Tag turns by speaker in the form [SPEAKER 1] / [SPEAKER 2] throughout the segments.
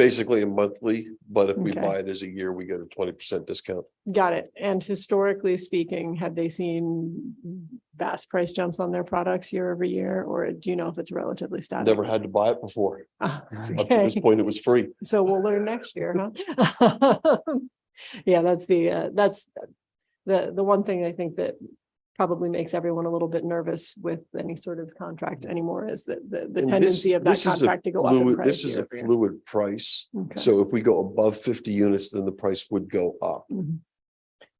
[SPEAKER 1] basically a monthly, but if we
[SPEAKER 2] Okay.
[SPEAKER 1] buy it as a year, we get a twenty percent discount.
[SPEAKER 2] Got it. And historically speaking, have they seen vast price jumps on their products year over year, or do you know if it's relatively static?
[SPEAKER 1] Never had to buy it before.
[SPEAKER 2] Ah,
[SPEAKER 1] Up to this
[SPEAKER 2] okay.
[SPEAKER 1] point, it was free.
[SPEAKER 2] So we'll learn next year, huh? Yeah, that's the, uh, that's the, the one thing I think that probably makes everyone a little bit nervous with any sort of contract anymore is that the,
[SPEAKER 1] Mm.
[SPEAKER 2] the
[SPEAKER 1] And this-
[SPEAKER 2] tendency of that
[SPEAKER 1] this is a
[SPEAKER 2] contract to go up in
[SPEAKER 1] fluid-
[SPEAKER 2] price.
[SPEAKER 1] This is
[SPEAKER 2] year
[SPEAKER 1] a
[SPEAKER 2] over year.
[SPEAKER 1] fluid price.
[SPEAKER 2] Okay.
[SPEAKER 1] So if we go above fifty units, then the price would go up.
[SPEAKER 2] Mhm.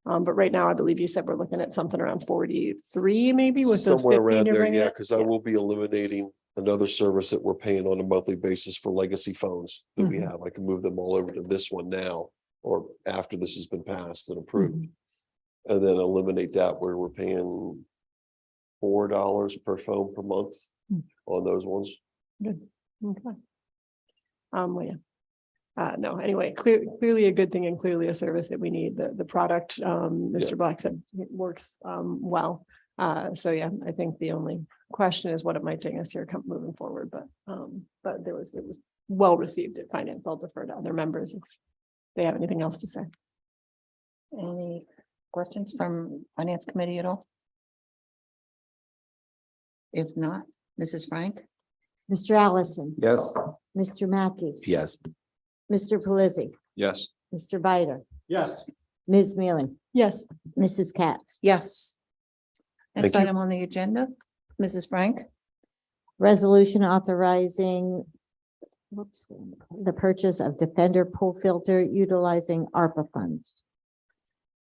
[SPEAKER 2] Um, but right now, I believe you said we're looking at something around forty-three, maybe with those
[SPEAKER 1] Somewhere
[SPEAKER 2] fifteen
[SPEAKER 1] around
[SPEAKER 2] to
[SPEAKER 1] there,
[SPEAKER 2] bring
[SPEAKER 1] yeah,
[SPEAKER 2] it.
[SPEAKER 1] because I
[SPEAKER 2] Yeah.
[SPEAKER 1] will be eliminating another service that we're paying on a monthly basis for legacy phones that we
[SPEAKER 2] Mhm.
[SPEAKER 1] have. I can move them all over to this one now or after this has been passed and approved.
[SPEAKER 2] Mm-hmm.
[SPEAKER 1] And then eliminate that where we're paying four dollars per phone per month
[SPEAKER 2] Mm.
[SPEAKER 1] on those ones.
[SPEAKER 2] Okay. Um, well, yeah. Uh, no, anyway, clear, clearly a good thing and clearly a service that we need. The, the product, um,
[SPEAKER 1] Yeah.
[SPEAKER 2] Mr. Black said it works, um, well. Uh, so yeah, I think the only question is what it might take us here come moving forward, but, um, but there was, it was well received at finance. I'll defer to other members if they have anything else to say.
[SPEAKER 3] Any questions from finance committee at all? If not, Mrs. Frank?
[SPEAKER 4] Mr. Allison.
[SPEAKER 5] Yes.
[SPEAKER 4] Mr. Mackey.
[SPEAKER 5] Yes.
[SPEAKER 4] Mr. Pelisi.
[SPEAKER 5] Yes.
[SPEAKER 4] Mr. Bider.
[SPEAKER 5] Yes.
[SPEAKER 4] Ms. Mealy.
[SPEAKER 2] Yes,
[SPEAKER 4] Mrs. Katz.
[SPEAKER 3] Yes. Next
[SPEAKER 1] Thank you.
[SPEAKER 3] item on the agenda, Mrs. Frank?
[SPEAKER 4] Resolution authorizing whoops, the purchase of Defender pool filter utilizing ARPA funds.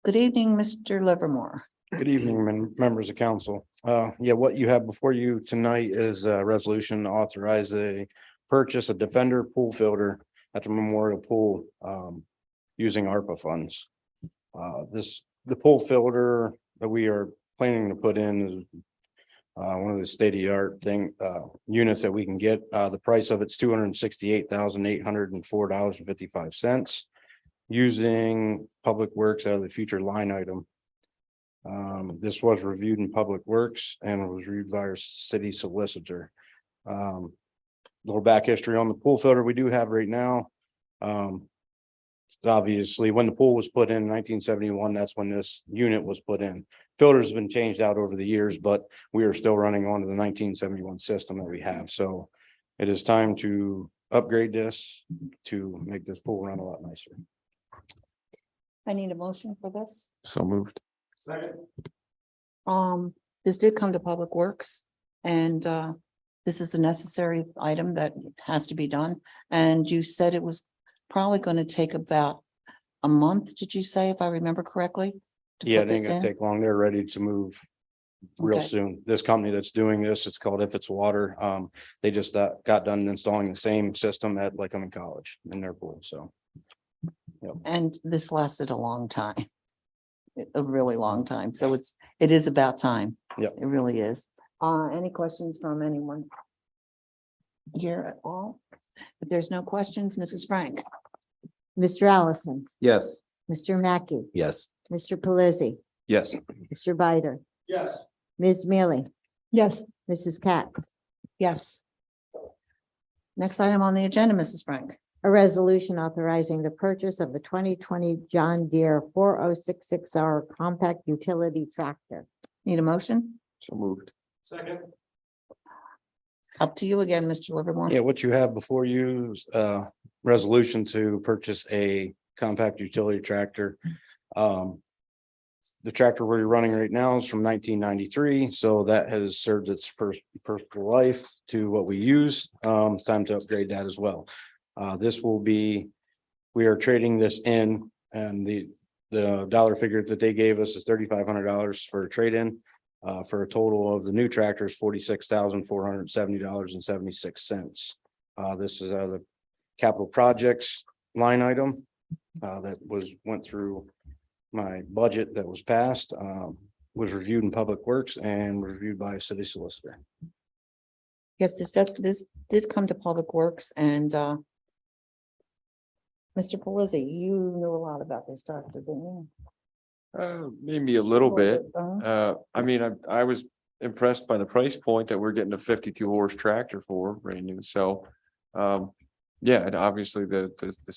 [SPEAKER 3] Good evening, Mr. Livermore.
[SPEAKER 6] Good evening, men- members of council. Uh, yeah, what you have before you tonight is a resolution to authorize a purchase a Defender pool filter at the Memorial Pool, um, using ARPA funds. Uh, this, the pool filter that we are planning to put in is uh, one of the state of the art thing, uh, units that we can get. Uh, the price of it's two hundred and sixty-eight thousand, eight hundred and four dollars and fifty-five cents using Public Works out of the future line item. Um, this was reviewed in Public Works and was reviewed by our city solicitor. Um, little back history on the pool filter we do have right now. Um, obviously, when the pool was put in nineteen seventy-one, that's when this unit was put in. Filters have been changed out over the years, but we are still running on to the nineteen seventy-one system that we have, so it is time to upgrade this to make this pool run a lot nicer.
[SPEAKER 3] I need a motion for this.
[SPEAKER 5] So moved.
[SPEAKER 3] Um, this did come to Public Works and uh, this is a necessary item that has to be done. And you said it was probably going to take about a month, did you say, if I remember correctly? to
[SPEAKER 6] Yeah,
[SPEAKER 3] put
[SPEAKER 6] it ain't
[SPEAKER 3] this
[SPEAKER 6] gonna
[SPEAKER 3] in?
[SPEAKER 6] take long. They're ready to move real
[SPEAKER 3] Okay.
[SPEAKER 6] soon. This company that's doing this, it's called If It's Water. Um, they just uh, got done installing the same system at like I'm in college in their pool, so.
[SPEAKER 3] And this lasted a long time. a- A really long time. So it's, it is about time.
[SPEAKER 6] Yep.
[SPEAKER 3] It really is. Uh, any questions from anyone? Here at all? If there's no questions, Mrs. Frank?
[SPEAKER 4] Mr. Allison.
[SPEAKER 5] Yes.
[SPEAKER 4] Mr. Mackey.
[SPEAKER 5] Yes.
[SPEAKER 4] Mr. Pelisi.
[SPEAKER 5] Yes.
[SPEAKER 4] Mr. Bider.
[SPEAKER 6] Yes.
[SPEAKER 4] Ms. Mealy.
[SPEAKER 2] yes,
[SPEAKER 4] Mrs. Katz.
[SPEAKER 3] Yes. Next item on the agenda, Mrs. Frank.
[SPEAKER 4] A resolution authorizing the purchase of the twenty twenty John Deere four oh six six R compact utility tractor.
[SPEAKER 3] Need a motion?
[SPEAKER 5] So moved.
[SPEAKER 6] Second.
[SPEAKER 3] Up to you again, Mr. Livermore.
[SPEAKER 6] Yeah, what you have before you is uh resolution to purchase a compact utility tractor. Um. The tractor we're running right now is from nineteen ninety-three, so that has served its first personal life to what we use. Um, it's time to upgrade that as well. Uh, this will be, we are trading this in and the the dollar figure that they gave us is thirty-five hundred dollars for a trade-in uh, for a total of the new tractors, forty-six thousand, four hundred and seventy dollars and seventy-six cents. Uh, this is out of the capital projects line item, uh, that was, went through my budget that was passed, um, was reviewed in Public Works and reviewed by a city solicitor.
[SPEAKER 3] Yes, this, did- this did come to Public Works and uh, Mr. Pelisi, you knew a lot about this doctor, didn't you?
[SPEAKER 7] Uh, maybe a little bit.
[SPEAKER 3] Uh-huh.
[SPEAKER 7] Uh, I mean, I, I was impressed by the price point that we're getting a fifty-two horse tractor for brand new, so. Um,
[SPEAKER 6] yeah, and obviously the, the, the